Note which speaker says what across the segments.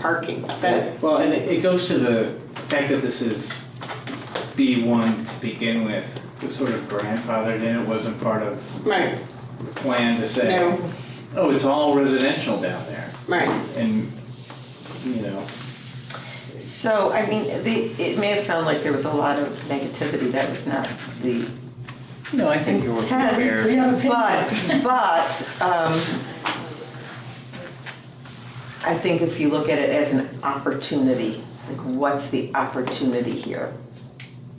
Speaker 1: parking, that,
Speaker 2: Well, and it it goes to the fact that this is B1 to begin with, was sort of grandfathered in, it wasn't part of
Speaker 1: right,
Speaker 2: the plan to say,
Speaker 1: no,
Speaker 2: oh, it's all residential down there,
Speaker 1: right.
Speaker 2: and, you know,
Speaker 3: So, I mean, the, it may have sounded like there was a lot of negativity, that was not the
Speaker 2: no, I think you were
Speaker 3: intent.
Speaker 2: fair.
Speaker 3: But, but, um, I think if you look at it as an opportunity, like what's the opportunity here?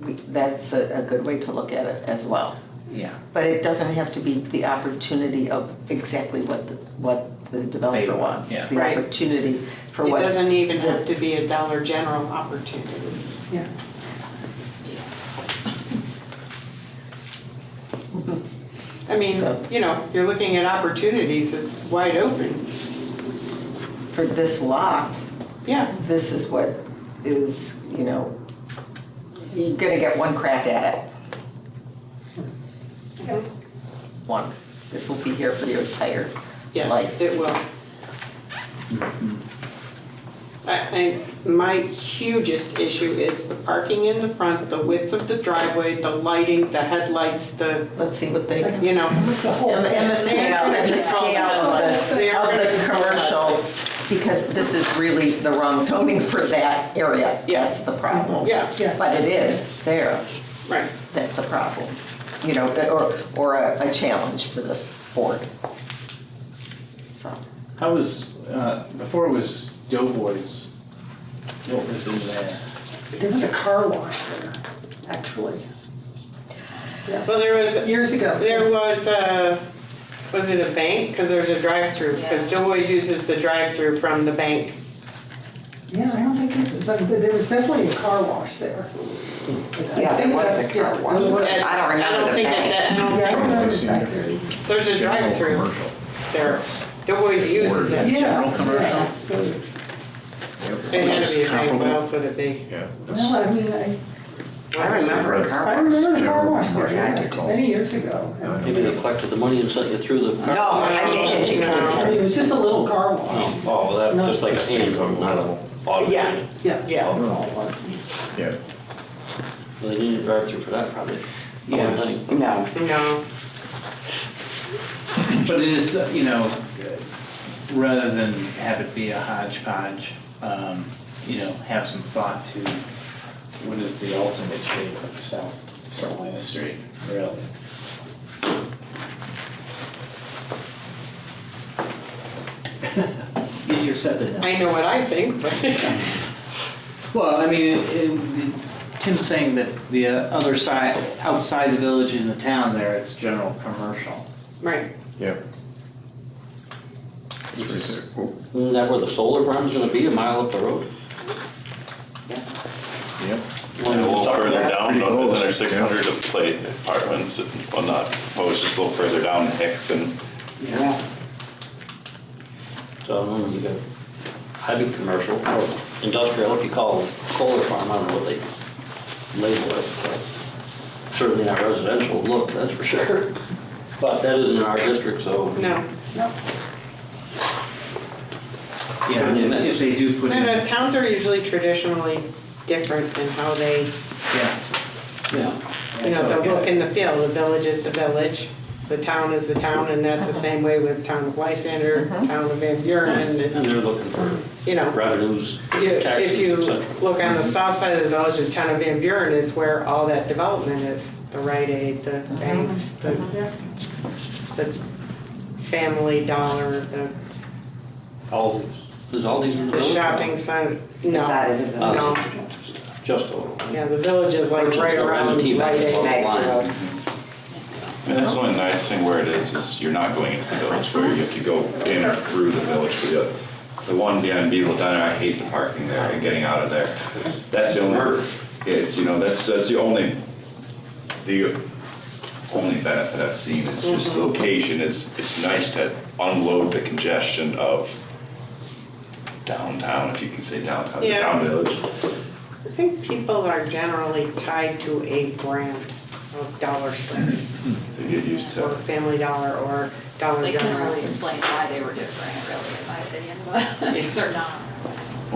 Speaker 3: We- That's a, a good way to look at it as well.
Speaker 2: Yeah,
Speaker 3: But it doesn't have to be the opportunity of exactly what the, what the developer
Speaker 2: They-
Speaker 3: wants.
Speaker 2: yeah.
Speaker 3: It's the
Speaker 1: Right.
Speaker 3: opportunity for
Speaker 1: It
Speaker 3: what.
Speaker 1: doesn't even have to be a Dollar General opportunity.
Speaker 3: Yeah.
Speaker 1: I mean,
Speaker 3: So-
Speaker 1: you know, you're looking at opportunities, it's wide open,
Speaker 3: For this lot,
Speaker 1: yeah,
Speaker 3: this is what is, you know, you're gonna get one crack at it. One. This will be here for your entire
Speaker 1: yes,
Speaker 3: life. Mm-hmm.
Speaker 1: it will. I, I, my hugest issue is the parking in the front, the width of the driveway, the lighting, the headlights, the,
Speaker 3: Let's see what they, and
Speaker 1: you know.
Speaker 4: The whole
Speaker 3: the and the
Speaker 4: thing.
Speaker 3: scale, and the scale of the, of the commercial, because this is really the wrong zoning for that area.
Speaker 1: Yeah.
Speaker 3: That's the problem.
Speaker 1: Yeah,
Speaker 4: Yeah.
Speaker 3: But it is there,
Speaker 1: right,
Speaker 3: that's a problem, you know, or, or a, a challenge for this board. So.
Speaker 2: I was, uh, before it was Doughboys, what was in there?
Speaker 4: There was a car wash there, actually. Yeah,
Speaker 1: well, there was,
Speaker 4: years ago.
Speaker 1: There was a, was it a bank? Because there's a drive-through, because Doughboys uses the drive-through from the bank.
Speaker 4: Yeah, I don't think, it- but there was definitely a car wash there. I
Speaker 3: Yeah, there
Speaker 4: think
Speaker 3: was
Speaker 4: that's-
Speaker 3: a car
Speaker 4: yeah,
Speaker 3: wash.
Speaker 4: those were-
Speaker 1: And
Speaker 4: Yeah,
Speaker 3: I don't remember the
Speaker 1: think that- that- I don't
Speaker 4: I
Speaker 1: think
Speaker 4: remember it back there.
Speaker 1: there's a drive-through there. Doughboys uses
Speaker 5: Or-
Speaker 1: it.
Speaker 4: Yeah,
Speaker 5: General
Speaker 4: yeah,
Speaker 5: commercial?
Speaker 4: so,
Speaker 1: It had to be a bank, what
Speaker 5: Comparable.
Speaker 1: else would it be?
Speaker 5: Yeah.
Speaker 4: well, I mean, I,
Speaker 3: I remember a car
Speaker 4: I
Speaker 3: wash.
Speaker 4: remember the car
Speaker 5: General
Speaker 4: wash there, yeah,
Speaker 5: commercial.
Speaker 4: many years ago.
Speaker 5: Yeah, I
Speaker 4: I
Speaker 6: Maybe they
Speaker 4: mean,
Speaker 6: collected the money and sent you through the.
Speaker 3: No, I mean, it-
Speaker 1: No.
Speaker 4: it was just a little car wash.
Speaker 6: Oh, that, just like a handgun, not an auto.
Speaker 1: Yeah,
Speaker 4: Yeah,
Speaker 1: Yeah.
Speaker 4: that's all it was.
Speaker 5: Yeah.
Speaker 6: Well, They needed a drive-through for that probably. Oh,
Speaker 2: Yes.
Speaker 6: Only thing.
Speaker 3: No.
Speaker 1: no,
Speaker 2: But it is, uh, you know, rather than have it be a hodgepodge, um, you know, have some thought to what is the ultimate shape of South Salina Street, really? Easier said than done.
Speaker 1: I know what I think, but
Speaker 2: Well, I mean, it- it- Tim's saying that the uh, other side, outside the village in the town there, it's general commercial.
Speaker 1: right,
Speaker 5: Yeah. It's pretty sick. Oh,
Speaker 6: Isn't that where the solar farm's gonna be, a mile up the road?
Speaker 5: Yeah.
Speaker 7: And a little
Speaker 6: Talk about
Speaker 7: further
Speaker 6: that.
Speaker 7: down,
Speaker 5: Pretty close.
Speaker 7: isn't there six hundred of plate apartments, and- well, not, well, it's just a little further down Hicks and,
Speaker 2: Yeah.
Speaker 6: So I don't know, you got heavy commercial or industrial, if you call it solar farm, I don't know what they label it. but Certainly not residential look, that's for sure. But that isn't in our district, so.
Speaker 1: no.
Speaker 4: No,
Speaker 2: Yeah, and if if they do put
Speaker 1: No,
Speaker 2: in.
Speaker 1: no, uh, towns are usually traditionally different in how they,
Speaker 2: Yeah. Yeah.
Speaker 1: you know, the look and the feel. The village is the village, the town is the town, and that's the same way with town of Lysander, town of Van Buren,
Speaker 6: And
Speaker 1: it's,
Speaker 6: they're looking for
Speaker 1: you know.
Speaker 6: revenues,
Speaker 1: You- If
Speaker 6: taxes,
Speaker 1: you
Speaker 6: et cetera.
Speaker 1: look on the south side of the village, the town of Van Buren is where all that development is. The Rite Aid, the banks, the, the Family Dollar, the,
Speaker 6: All these, there's all these in the
Speaker 1: the
Speaker 6: village?
Speaker 1: shopping side, no,
Speaker 3: Decided to vote.
Speaker 1: no.
Speaker 6: Just over. right?
Speaker 1: Yeah, the village is like
Speaker 6: Merchants
Speaker 1: right
Speaker 6: are
Speaker 1: around
Speaker 6: renting
Speaker 1: Rite
Speaker 6: back
Speaker 1: Aid.
Speaker 6: along the line.
Speaker 7: and that's the only nice thing where it is, is you're not going into the village, where you have to go in or through the village. for The the one behind Beagle Diner, I hate the parking there and getting out of there. That's the only, it's, you know, that's, that's the only, the only benefit I've seen is just the location is, it's nice to unload the congestion of downtown, if you can say downtown, the
Speaker 1: Yeah.
Speaker 7: town village.
Speaker 1: I think people are generally tied to a brand of Dollar Store
Speaker 7: They get used
Speaker 1: or
Speaker 7: to.
Speaker 1: Family Dollar or Dollar
Speaker 8: They can
Speaker 1: General.
Speaker 8: really explain why they were different, really, in my opinion, but they're not.